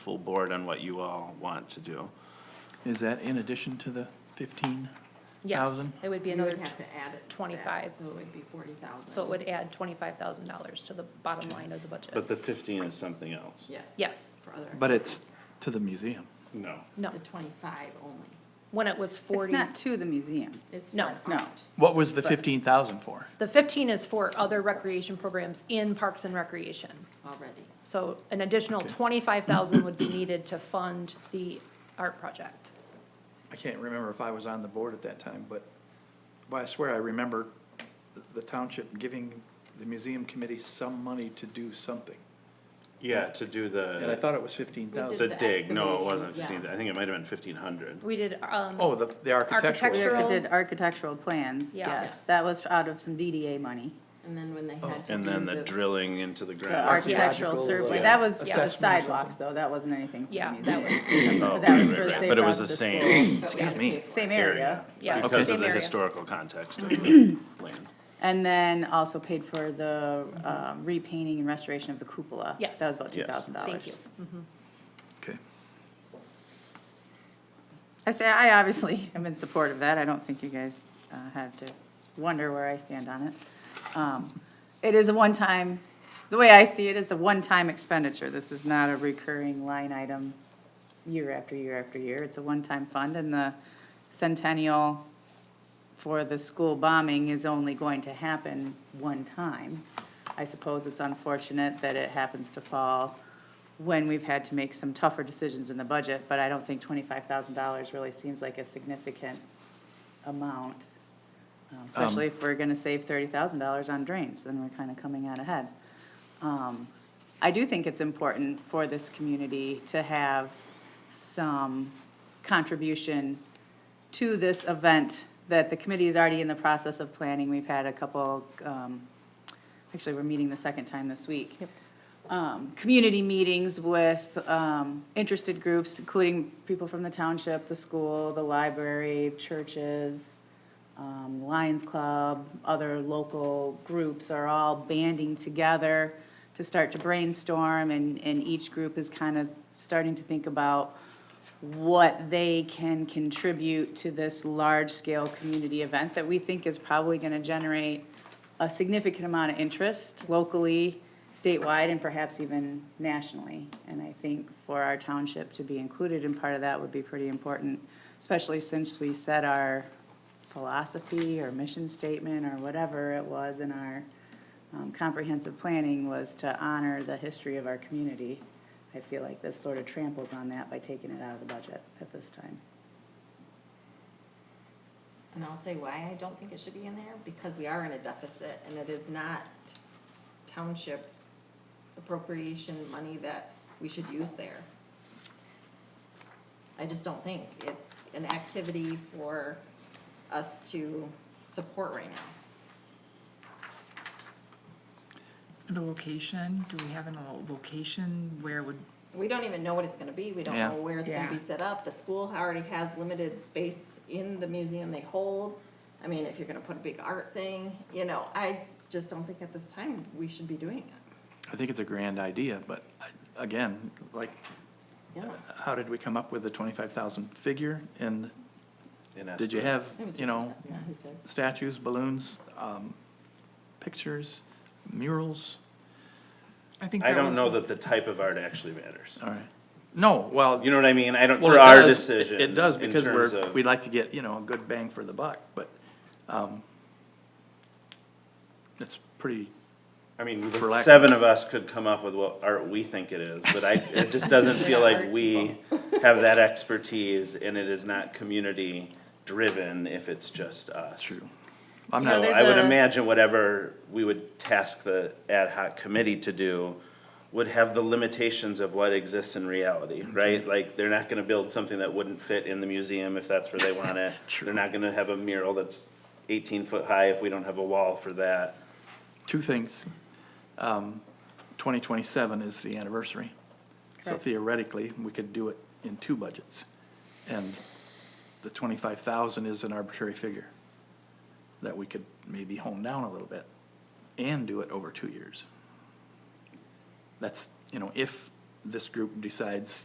full board on what you all want to do. Is that in addition to the fifteen Yes, thousand? it would be You another, would tw- have to add it. to 25. that, So it would be forty thousand. so it would add twenty-five thousand dollars to the bottom line of the But budget. the fifteen is something else. Yes. Yes, For other. But it's to the museum. No. no, The twenty-five only. when it was It's forty, not to the museum. It's No. for No. art. What was the fifteen thousand for? the fifteen is for other recreation programs in Parks and Recreation. Already. So an additional twenty-five thousand would be needed to fund the art project. I can't remember if I was on the board at that time, but, but I swear I remember the township giving the museum committee some money to do something. Yeah, to do And I the, thought it was fifteen the thousand. The dig, no, it excavating, wasn't yeah. fifteen, I think it might have been fifteen hundred. We did, um, Oh, the, the We architectural. Architectural. did architectural plans, Yeah. yes. That was out of some DDA money. And then when they had to do Oh, And the. then the drilling into the The ground. architectural Archaeological, survey, uh, that was for the assessment or sidewalks though, that wasn't anything for the yeah, museum. that was, Oh, But that was right, for right, the right. Safe But it was the Routes to same But we Excuse had me. safe Same work. area. yeah. because same of the area. historical context of the land. And then also paid for the um, repainting and restoration of the cupola. Yes. That was about two Yes. thousand dollars. Thank you. Okay. I say, I obviously am in support of that. I don't think you guys uh, have to wonder where I stand on it. Um, It is a one-time, the way I see it, it's a one-time expenditure. This is not a recurring line item year after year after year. It's a one-time fund, and the centennial for the school bombing is only going to happen one time. I suppose it's unfortunate that it happens to fall when we've had to make some tougher decisions in the budget, but I don't think twenty-five thousand dollars really seems like a significant amount. um, Especially if we're gonna save thirty thousand dollars on drains, then we're kinda coming out ahead. Um, I do think it's important for this community to have some contribution to this event that the committee is already in the process of planning. We've had a couple, um, actually, we're meeting the second time this week. Um, Community meetings with um, interested groups, including people from the township, the school, the library, churches, um, Lions Club, other local groups are all banding together to start to brainstorm, and, and each group is kind of starting to think about what they can contribute to this large-scale community event that we think is probably gonna generate a significant amount of interest locally, statewide, and perhaps even nationally. And I think for our township to be included in part of that would be pretty important, especially since we set our philosophy or mission statement or whatever it was in our um, comprehensive planning was to honor the history of our community. I feel like this sort of tramples on that by taking it out of the budget at this time. And I'll say why I don't think it should be in there, because we are in a deficit and it is not township appropriation money that we should use there. I just don't think it's an activity for us to support right now. And a location, do we have a location where would, We don't even know what it's gonna be, we don't Yeah. know where it's gonna be Yeah. set up, the school already has limited space in the museum they hold. I mean, if you're gonna put a big art thing, you know, I just don't think at this time we should be doing it. I think it's a grand idea, but I- again, like, Yeah. how did we come up with the twenty-five thousand figure? And in did you estimate. have, It was you just know, us, yeah, he said. statues, balloons, um, pictures, murals? I think I that don't was know the- that the type of art actually matters. All right. No, well. You know what I mean? I don't, Well, for it our does- it- decision. It does, in because terms we're, of- we'd like to get, you know, a good bang for the buck, but, um, it's pretty, I mean, the for lack of- seven of us could come up with what art we think it is, but I, it just doesn't feel like we have that expertise, and it is not community-driven if it's just us. true. I'm So not, there's I would a- imagine whatever we would task the ad hoc committee to do would have the limitations of what exists in reality, Mm-hmm. right? Like, they're not gonna build something that wouldn't fit in the museum if that's where they want it. They're not gonna have a mural that's eighteen foot high if we don't have a wall for that. two things. Um, twenty twenty-seven is the anniversary. So Correct. theoretically, we could do it in two budgets. And the twenty-five thousand is an arbitrary figure that we could maybe hone down a little bit and do it over two years. That's, you know, if this group decides,